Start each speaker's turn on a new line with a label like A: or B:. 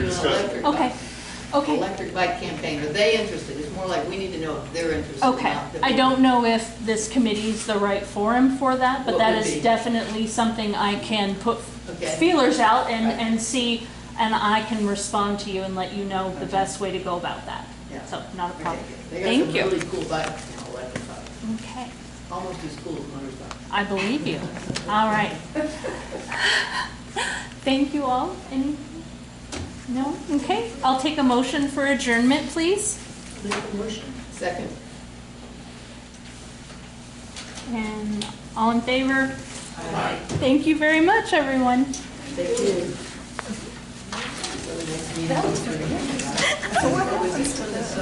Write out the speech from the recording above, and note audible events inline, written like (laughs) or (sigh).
A: discuss it.
B: electric bike-
C: Okay, okay,
B: Electric bike campaign, are they interested? It's more like we need to know if they're interested or
C: okay.
B: not.
C: I don't know if this committee's the right forum for that, but
B: What
C: that
B: would
C: is
B: be?
C: definitely something I can put
B: Okay.
C: feelers out and,
B: Right.
C: and see, and I can respond to you and let you know the
B: Okay.
C: best way to go about that.
B: Yeah.
C: So, not a
B: Okay,
C: problem.
B: They got
C: Thank
B: some
C: you.
B: really cool bikes now, electric bikes,
C: Okay,
B: almost as cool as motorcycles.
C: I believe you. All right. (laughs) Thank you all. Any, no? Okay, I'll take a motion for adjournment, please.
B: Second,
C: And all in favor?
B: Aye.
C: Thank you very much, everyone.
B: they do. So the next meeting is-